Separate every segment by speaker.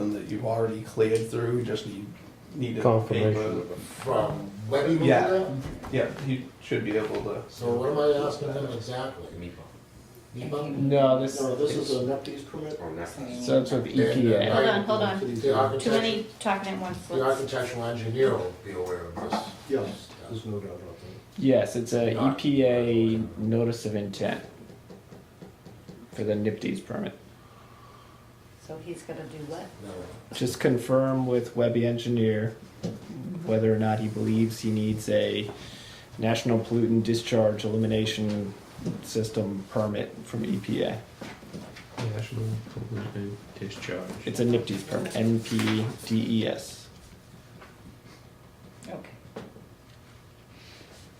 Speaker 1: you've already cleared through, you just need, need a
Speaker 2: Confirmation.
Speaker 1: paper.
Speaker 3: From when he moved
Speaker 1: Yeah.
Speaker 3: out?
Speaker 1: Yeah, you should be able to,
Speaker 3: So what am I asking him exactly? NEPA?
Speaker 4: No, this,
Speaker 3: No, this is a NEPD's permit?
Speaker 4: so it's with E
Speaker 5: Hold
Speaker 4: EPA.
Speaker 5: on, hold on.
Speaker 3: The
Speaker 5: Too
Speaker 3: architecture,
Speaker 5: many talking at once.
Speaker 3: the
Speaker 5: Let's-
Speaker 3: architectural engineer will be aware of this.
Speaker 6: Yes, there's no doubt about
Speaker 4: Yes, it's a EPA notice of intent for the NIPD's permit.
Speaker 7: So he's gonna do what?
Speaker 3: No,
Speaker 4: Just confirm with Webby Engineer whether or not he believes he needs a national pollutant discharge elimination system permit from E EPA.
Speaker 2: National pollutant discharge.
Speaker 4: It's a NIPD's permit, NPDES.
Speaker 7: Okay.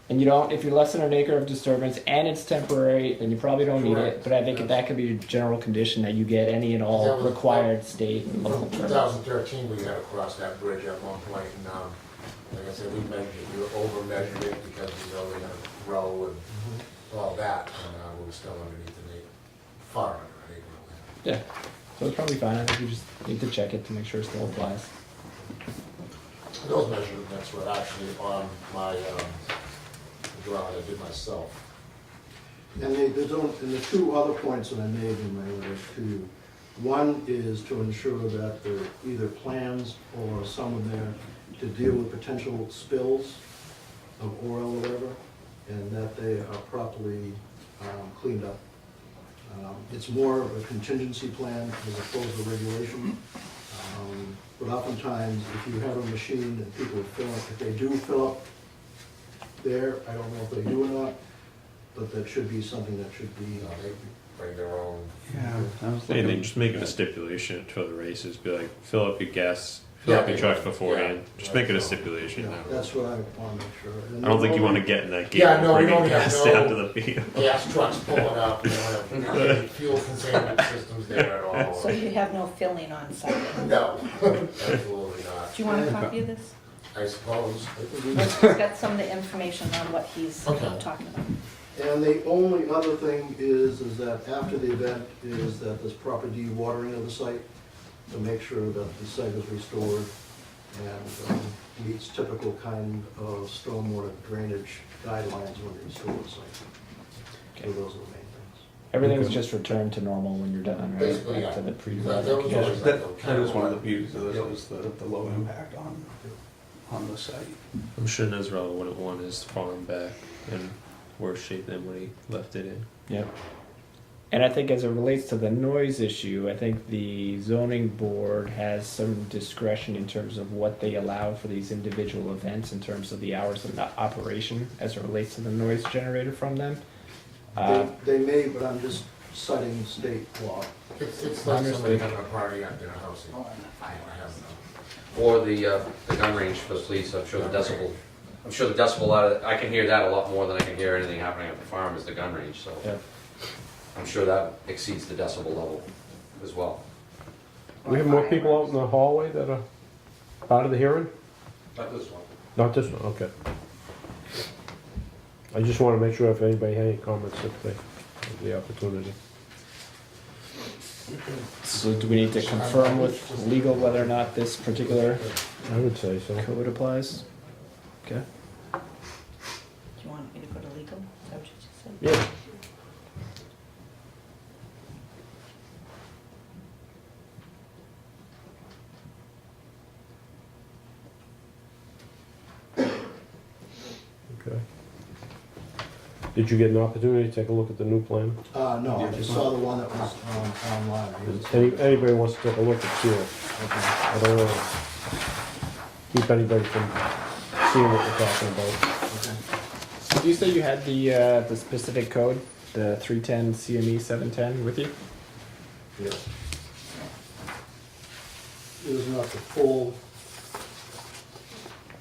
Speaker 4: And you don't, if you're less than an acre of disturbance and it's temporary, then you probably don't need it.
Speaker 3: Correct.
Speaker 4: But I think that could be a general condition that you get any and
Speaker 3: That
Speaker 4: all
Speaker 3: was-
Speaker 4: required state and local
Speaker 3: From
Speaker 4: permits.
Speaker 3: 2013, we had to cross that bridge at one point, and, um, like I said, we measured, we were over measured it because we were going to grow and all that, and, uh, we were still underneath an acre, far under an acre. of land.
Speaker 4: Yeah, so it's probably fine. I think you just need to check it to make sure it still applies.
Speaker 3: Those measurements were actually on my, um, drawing I did myself.
Speaker 6: that. And they, they don't, and the two other points that I made in my letter to you, one is to ensure that there are either plans or someone there to deal with potential spills of oil or whatever, and that they are properly um, cleaned up. Um, It's more of a contingency plan as opposed to regulation. Um, But oftentimes, if you have a machine and people fill up, if they do fill up there, I don't know if they do or not, but that should be something that should be, uh,
Speaker 3: You know, they bring their own,
Speaker 1: yeah. I
Speaker 8: And
Speaker 1: was
Speaker 8: then
Speaker 1: looking-
Speaker 8: just make it a stipulation for the races, be like, fill up your gas, fill up your truck beforehand, just make it a
Speaker 6: you
Speaker 8: stipulation
Speaker 6: know,
Speaker 8: now.
Speaker 6: that's what I want to make sure.
Speaker 8: I don't think you wanna get in that game
Speaker 3: Yeah, no,
Speaker 8: of
Speaker 3: we
Speaker 8: bringing
Speaker 3: don't have
Speaker 8: gas
Speaker 3: no-
Speaker 8: down to the field.
Speaker 3: gas trucks pulling up, you know, and any fuel containment systems there at all.
Speaker 7: So you have no filling on site?
Speaker 3: No, absolutely not,
Speaker 7: Do you want a copy of this?
Speaker 3: I suppose.
Speaker 7: It's got some of the information on what he's uh,
Speaker 3: Okay.
Speaker 7: talking about.
Speaker 6: And the only other thing is, is that after the event, is that there's proper de-watering of the site to make sure that the site is restored and um, meets typical kind of stormwater drainage guidelines when you restore the site. So
Speaker 4: Okay.
Speaker 6: those are the main
Speaker 4: Everything's just returned to normal when you're done, right?
Speaker 3: Basically,
Speaker 4: Back to the
Speaker 3: yeah.
Speaker 4: pre-flood.
Speaker 3: Yeah.
Speaker 1: Yeah, that, that is one of the beauties of this, was the, the low impact on, on the site.
Speaker 8: I'm sure Nezrela wouldn't want his farm back in worse shape than when he left it in.
Speaker 4: Yep. And I think as it relates to the noise issue, I think the zoning board has some discretion in terms of what they allow for these individual events in terms of the hours of the operation as it relates to the noise generated from them. Uh,
Speaker 6: things. They they may, but I'm just citing state law.
Speaker 3: It's, it's like somebody having a party at their house. I have
Speaker 9: Or the, uh, the gun range for the police, I'm sure the decibel, I'm sure the decibel out of, I can hear that a lot more than I can hear anything happening at the farm is the gun range, so.
Speaker 4: yeah.
Speaker 9: I'm sure that exceeds the decibel level as well.
Speaker 2: We have more people out in the hallway that are part of the hearing?
Speaker 9: But this one.
Speaker 2: Not this one, okay. I just wanna make sure if anybody had any comments, if they had the opportunity.
Speaker 4: So do we need to confirm with legal whether or not this particular
Speaker 2: I would say so.
Speaker 4: code applies? Okay.
Speaker 7: Do you want me to go to legal? Is that what you just said?
Speaker 2: Yeah. Okay. Did you get an opportunity to take a look at the new plan?
Speaker 6: Uh, no, I just saw the one that was um, online.
Speaker 2: Does any- Anybody wants to take a look at it?
Speaker 6: Okay.
Speaker 2: I don't want to keep anybody from seeing what we're talking about.
Speaker 4: Did you say you had the, uh, the specific code, the three ten CME seven ten with you?
Speaker 6: Yes. It is not the full.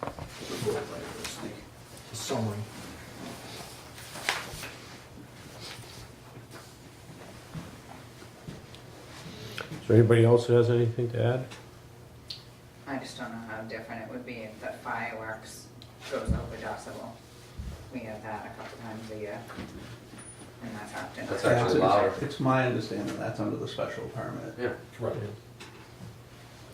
Speaker 6: the full language, the Summary.
Speaker 2: Is there anybody else who has anything to add?
Speaker 5: I just don't know how different it would be if the fireworks goes over decibel. We have that a couple times a year, and that's often.
Speaker 9: That's
Speaker 1: That's-
Speaker 9: actually louder.
Speaker 1: It's my understanding that's under the special permit.
Speaker 9: Yeah.
Speaker 3: Right.